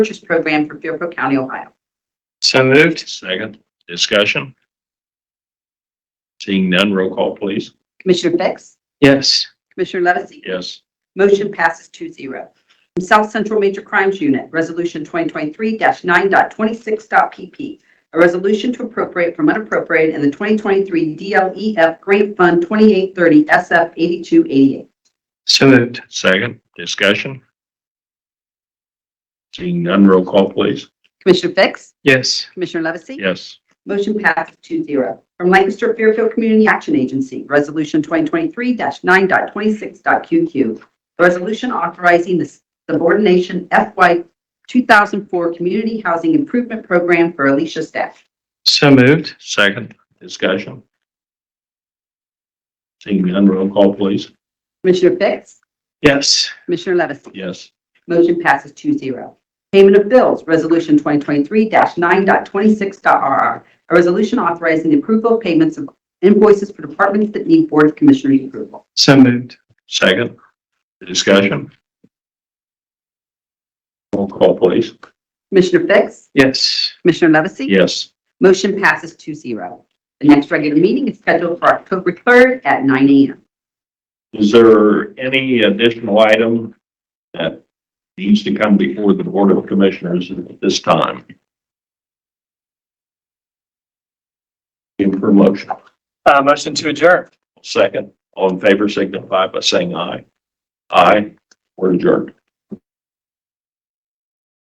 purchase program for Fairfield County, Ohio. So moved. Second, discussion. Seeing none, roll call, please. Commissioner Fix? Yes. Commissioner Levesey? Yes. Motion passes 2-0. From South Central Major Crimes Unit, Resolution 2023-9.26.PP. A resolution to appropriate from unappropriated in the 2023 DLEF E Grant Fund 2830 SF 8288. So moved. Second, discussion. Seeing none, roll call, please. Commissioner Fix? Yes. Commissioner Levesey? Yes. Motion passes 2-0 From Lancaster Fairfield Community Action Agency, Resolution 2023-9.26.QQ. A resolution authorizing the subordination FY 2004 Community Housing Improvement Program for Alicia staff. So moved. Second, discussion. Seeing none, roll call, please. Commissioner Fix? Yes. Commissioner Levesey? Yes. Motion passes 2-0. Payment of bills, Resolution 2023-9.26.RR. A resolution authorizing the approval of payments of invoices for departments that need Board of Commissioners approval. So moved. Second, discussion. Roll call, please. Commissioner Fix? Yes. Commissioner Levesey? Yes. Motion passes 2-0. The next regular meeting is scheduled for October 3rd at 9 a.m. Is there any additional item that needs to come before the Board of Commissioners at this time? In for motion. Uh, motion to adjourn. Second, all in favor signify by saying aye. Aye, we're adjourned.